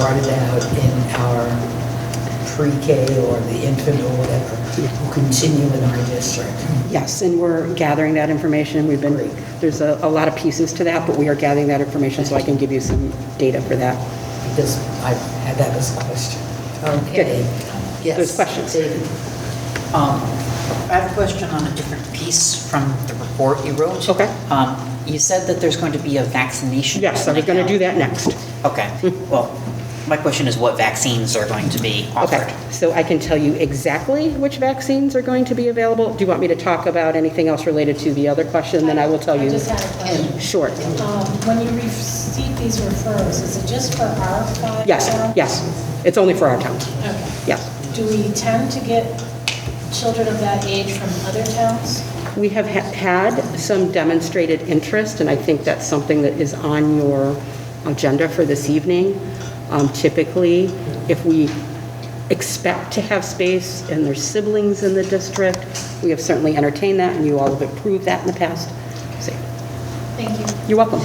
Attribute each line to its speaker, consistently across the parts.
Speaker 1: brought it out in our pre-K or the infant or whatever, will continue in our district.
Speaker 2: Yes, and we're gathering that information. We've been, there's a, a lot of pieces to that, but we are gathering that information so I can give you some data for that.
Speaker 1: Because I had that as a question. Okay. Yes.
Speaker 2: Those questions.
Speaker 1: David.
Speaker 3: Um, I have a question on a different piece from the report you wrote.
Speaker 2: Okay.
Speaker 3: Um, You said that there's going to be a vaccination.
Speaker 2: Yes, I was going to do that next.
Speaker 3: Okay, well, my question is what vaccines are going to be offered?
Speaker 2: Okay, so I can tell you exactly which vaccines are going to be available. Do you want me to talk about anything else related to the other question? Then I will tell you.
Speaker 4: I just had a question.
Speaker 2: Short.
Speaker 4: Um, When you receive these referrals, is it just for our five?
Speaker 2: Yes,
Speaker 4: towns?
Speaker 2: yes. It's only for our town.
Speaker 4: Okay.
Speaker 2: Yes.
Speaker 4: Do we tend to get children of that age from other towns?
Speaker 2: We have ha- had some demonstrated interest, and I think that's something that is on your agenda for this evening. Um, Typically, if we expect to have space and there's siblings in the district, we have certainly entertained that, and you all have approved that in the past. So,
Speaker 4: Thank you.
Speaker 2: You're welcome.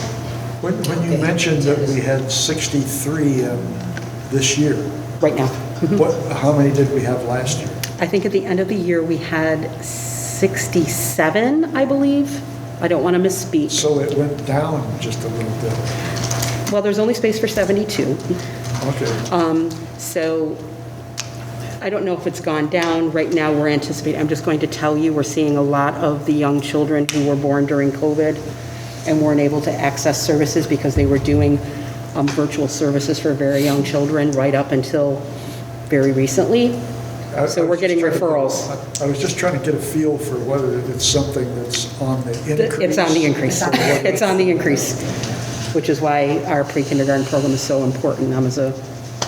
Speaker 5: When, when you mentioned that we had 63 um, this year,
Speaker 2: Right now.
Speaker 5: what, how many did we have last year?
Speaker 2: I think at the end of the year, we had 67, I believe. I don't want to misspeak.
Speaker 5: So it went down just a little bit.
Speaker 2: Well, there's only space for 72.
Speaker 5: Okay,
Speaker 2: Uh, So I don't know if it's gone down. Right now, we're anticipating, I'm just going to tell you, we're seeing a lot of the young children who were born during COVID and weren't able to access services because they were doing um, virtual services for very young children right up until very recently.
Speaker 5: I- I
Speaker 2: So we're
Speaker 5: was
Speaker 2: getting
Speaker 5: just trying to-
Speaker 2: referrals.
Speaker 5: I- I was just trying to get a feel for whether it's something that's on the increase.
Speaker 2: It's on the increase. It's on the increase, which is why our pre-kindergarten program is so important. I'm as a,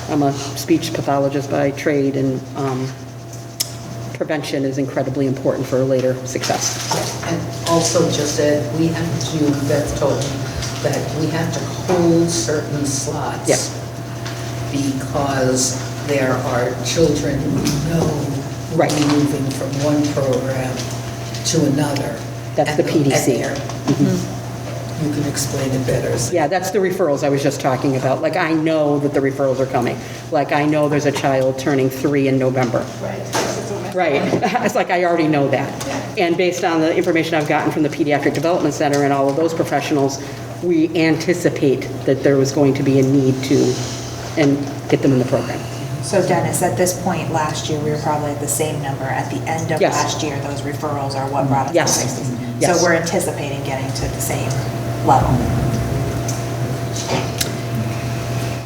Speaker 2: I'm a speech pathologist by trade, and um, prevention is incredibly important for later success.
Speaker 1: And also just that we have to, Beth told me, that we have to hold certain slots.
Speaker 2: Yeah.
Speaker 1: Because there are children who know will
Speaker 2: Right.
Speaker 1: be moving from one program to another.
Speaker 2: That's
Speaker 1: And
Speaker 2: the
Speaker 1: they'll get
Speaker 2: PDC.
Speaker 1: there.
Speaker 2: Mm-hmm.
Speaker 1: You can explain it better. so-
Speaker 2: Yeah, that's the referrals I was just talking about. Like, I know that the referrals are coming. Like, I know there's a child turning three in November. Right. It's like, I already know that. And based on the information I've gotten from the Pediatric Development Center and all of those professionals, we anticipate that there was going to be a need to, and get them in the program.
Speaker 6: So Dennis, at this point last year, we were probably at the same number. At the end of
Speaker 2: Yes.
Speaker 6: last year, those referrals are what brought us
Speaker 2: Yes.
Speaker 6: to 60.
Speaker 2: Yes.
Speaker 6: So we're anticipating getting to the same level.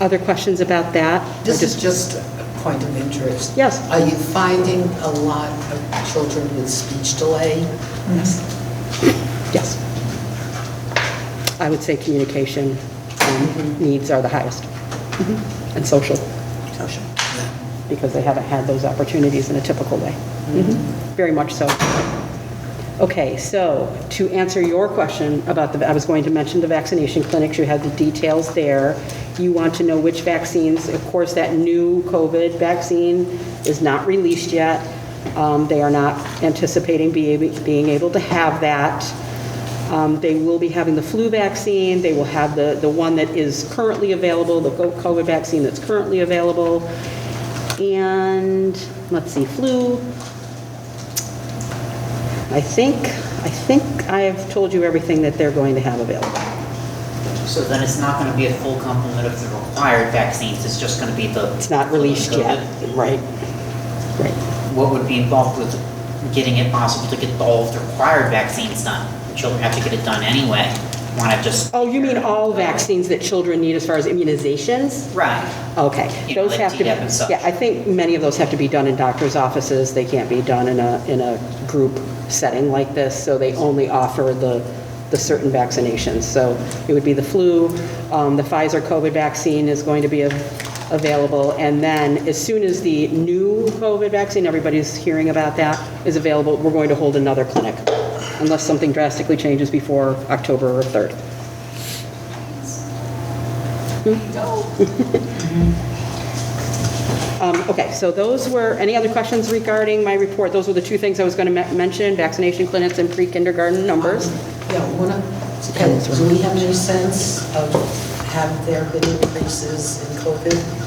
Speaker 2: Other questions about that? Or
Speaker 1: This
Speaker 2: just-
Speaker 1: is just a point of interest.
Speaker 2: Yes.
Speaker 1: Are you finding a lot of children with speech delay?
Speaker 2: Yes. I would say communication um, needs are the highest, and social. Mm-hmm. Social. Because they haven't had those opportunities in a typical way. Mm-hmm. Very much so. Okay, so to answer your question about the, I was going to mention the vaccination clinics, you had the details there. You want to know which vaccines, of course, that new COVID vaccine is not released yet. Um, They are not anticipating be able- being able to have that. Um, They will be having the flu vaccine, they will have the, the one that is currently available, the COVID vaccine that's currently available. And, let's see, flu, I think, I think I have told you everything that they're going to have available.
Speaker 3: So then it's not going to be a full complement of the required vaccines, it's just going to be the.
Speaker 2: It's not released yet. Right. Right.
Speaker 3: What would be involved with getting it possible to get all of the required vaccines done? Children have to get it done anyway, why not just?
Speaker 2: Oh, you mean all vaccines that children need as far as immunizations?
Speaker 3: Right.
Speaker 2: Okay.
Speaker 3: You know,
Speaker 2: Those
Speaker 3: like
Speaker 2: have to,
Speaker 3: DDaP and such.
Speaker 2: yeah, I think many of those have to be done in doctor's offices. They can't be done in a, in a group setting like this, so they only offer the, the certain vaccinations. So it would be the flu, um, the Pfizer COVID vaccine is going to be a available. And then as soon as the new COVID vaccine, everybody's hearing about that, is available, we're going to hold another clinic unless something drastically changes before October 3rd. Um, Okay, so those were, any other questions regarding my report? Those were the two things I was going to mention, vaccination clinics and pre-kindergarten numbers.
Speaker 1: Yeah, one of, and do we have any sense of have there been increases in COVID?